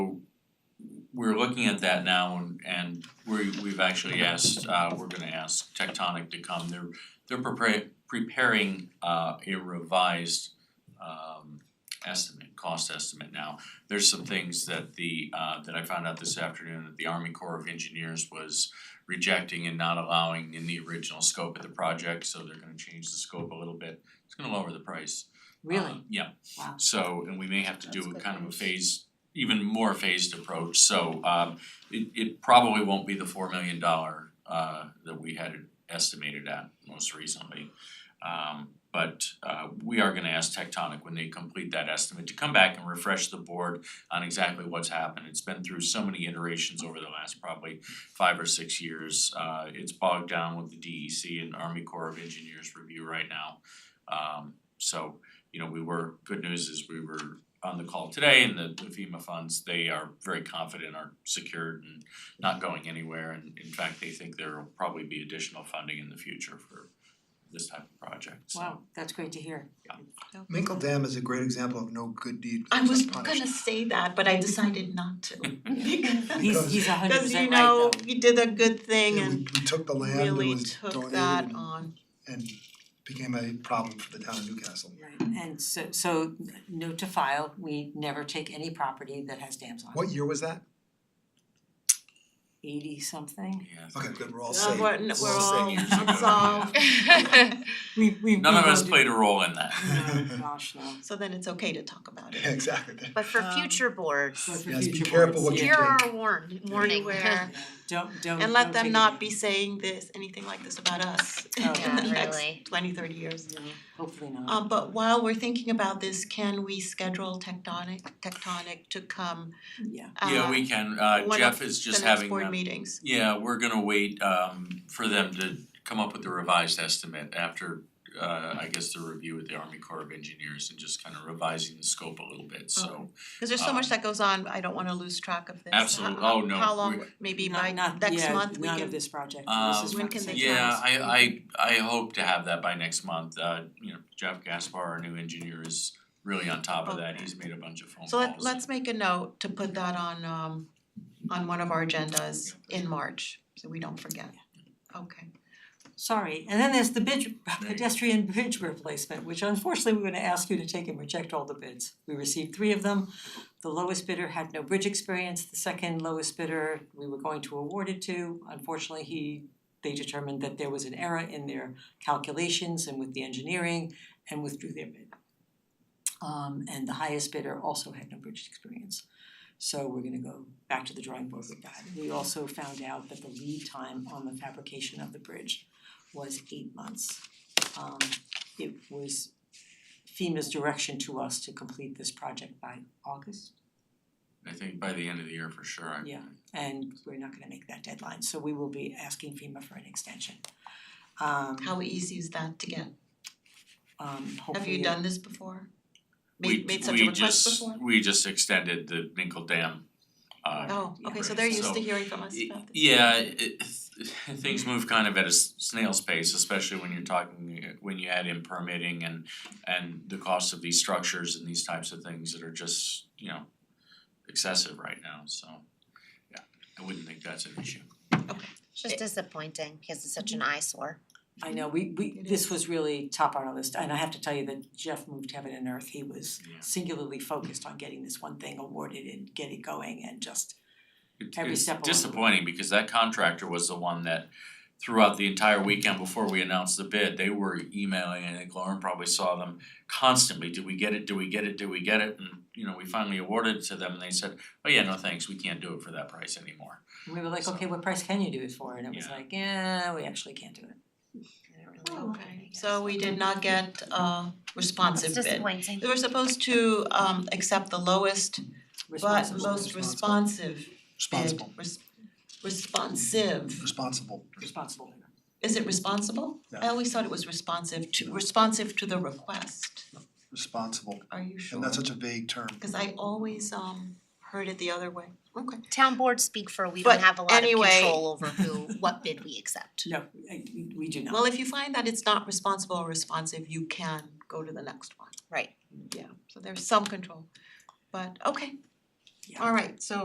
we're looking at that now and and we we've actually asked, uh we're gonna ask Tectonic to come. They're they're prepare preparing uh a revised um estimate, cost estimate now. There's some things that the uh that I found out this afternoon that the Army Corps of Engineers was rejecting and not allowing in the original scope of the project, so they're gonna change the scope a little bit. It's gonna lower the price. Really? Um, Yeah. Wow. So, and we may have to do That's a good kind of a news. phased, even more phased approach, so um it it probably won't be the four million dollar uh that we had it estimated at most recently. Um but uh we are gonna ask Tectonic when they complete that estimate to come back and refresh the board on exactly what's happened. It's been through so many iterations over the last probably five or six years. Uh it's bogged down with the DEC and Army Corps of Engineers review right now. Um so you know, we were, good news is we were on the call today and the the FEMA funds, they are very confident are secured and not going anywhere. And in fact, they think there will probably be additional funding in the future for this type of project, so. Wow, that's great to hear. Minkle Dam is a great example of no good deed I was goes gonna unpunished. say that, but I decided not to. He's he's a hundred Cause you percent right though. know, you did a good thing Yeah, we- and we took the land, it really was took donated that and on. and became a problem for the town of Newcastle. Right, and so so note to file, we never take any property that has dams on it. What year was that? Eighty something. Yeah. Okay, good, we're all Uh, safe. we're- n- We're all safe. years we're all, ago, it's all, We we None of we us voted- played a role in that. No, Oh, gosh, no. so then it's okay to talk about Yeah, it. exactly. But for Um, future So boards, for Yes, be future careful boards, what you yeah. Here drink. are warned, warning Warning. where, Don't don't and don't let them take not it. be saying this, anything like this about us in Oh, the yeah, next really. 20, 30 years. No, hopefully not. Um but while we're thinking about this, can we schedule Tectonic, Tectonic to come Yeah, uh Yeah, we can, uh one Jeff of is the just next having board them- meetings? Yeah, we're gonna wait um for them to come up with the revised estimate after uh I guess the review with the Army Corps of Engineers and just kind of revising the scope a little Oh, bit, so. Okay. Cause there's so Um, much that goes on, I don't wanna lose track of this. Absolute- How- oh, no, How long, we- maybe Not- by not- next yeah, month, we none can- of this project, Um, this is When not can they something- Yeah, times. I I I hope to have that by next month, uh you know, Jeff Gaspar, our new engineer, is really on top of that, Okay. he's made a bunch of phone calls. So let let's make a note to put that on um on one of our agendas in March, so we don't forget. Okay, Sorry, and then there's the bridge you go. pedestrian bridge replacement, which unfortunately we're gonna ask you to take and reject all the bids. We received three of them. The lowest bidder had no bridge experience, the second lowest bidder, we were going to award it to. Unfortunately, he, they determined that there was an error in their calculations and with the engineering and withdrew their bid. Um and the highest bidder also had no bridge experience. So we're gonna go back to the drawing board with that. We also found out that the lead time on the fabrication of the bridge was eight months. Um it was FEMA's direction to us to complete this project by August, I think by the end of the year for sure, I Yeah. and we're not gonna make that deadline, so we will be asking FEMA for an extension. Um how easy is that to get? um Have hopefully you it- done this before? we Made made such we a request just before? we just extended the Minkle Dam uh Oh, Yeah. okay, so they're used So, to hearing from us about this. Yeah, it things move kind of at a s- snail's pace, especially when you're talking, uh, when you add in permitting and and the cost of these structures and these types of things that are just, you know, excessive right now, so yeah, I wouldn't think that's an issue. it's just disappointing because it's such an Mm-hmm. eyesore. I know, we we It this is. was really top on our list, and I have to tell you that Jeff moved heaven and earth, he was Yeah. singularly focused on getting this one thing awarded and get it going and just It- Every it's step along the way. disappointing because that contractor was the one that throughout the entire weekend before we announced the bid, they were emailing and I think Lauren probably saw them constantly, do we get it, do we get it, do we get it? And you know, we finally awarded it to them and they said, oh yeah, no thanks, we can't do it for that price anymore. we were like, So- okay, what price can you do it for? And it was Yeah. like, yeah, we actually can't do it. And it really- Oh, Okay, so we did not get a responsive It's bid. disappointing. We were supposed to um accept the lowest but Responsible. most responsive bid, Responsible, res- responsive. responsible. Responsible bidder. Is it responsible? I No. always thought it was responsive to, responsive to the request. responsible, Are you sure? and that's such a vague term. Cause I always um heard it the other way. Okay. Town boards speak for we But don't have a lot of anyway- control over who, what bid we accept. No, I- we we do not. Well, if you find that it's not responsible or responsive, you can go to the next one. Right. Yeah, so there's some control. But okay, Yeah. all right, so